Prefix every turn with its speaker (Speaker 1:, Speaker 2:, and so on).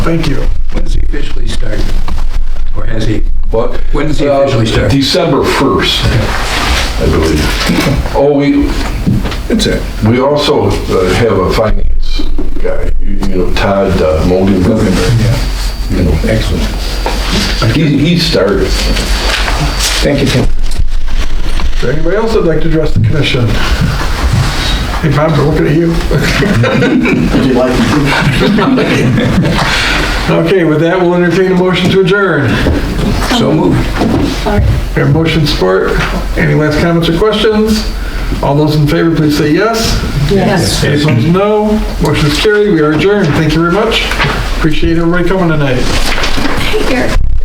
Speaker 1: Thank you.
Speaker 2: When's he officially start? Or has he?
Speaker 3: What?
Speaker 2: When does he
Speaker 3: Uh,
Speaker 2: officially start?
Speaker 3: December 1st, I believe. Oh, we,
Speaker 1: That's it.
Speaker 3: we also uh, have a finance guy, you you know, Todd uh, Mogan. You know,
Speaker 1: Excellent.
Speaker 3: He, he started.
Speaker 1: Thank you, Tim. Is there anybody else that'd like to address the commission? Hey, Bob, we're looking at you. Okay, with that, we'll entertain a motion to adjourn.
Speaker 2: So moved.
Speaker 1: We have motion support. Any last comments or questions? All those in favor, please say yes.
Speaker 4: Yes.
Speaker 1: Any opposed, no. Motion is carried. We are adjourned. Thank you very much. Appreciate everybody coming tonight.
Speaker 4: Eric.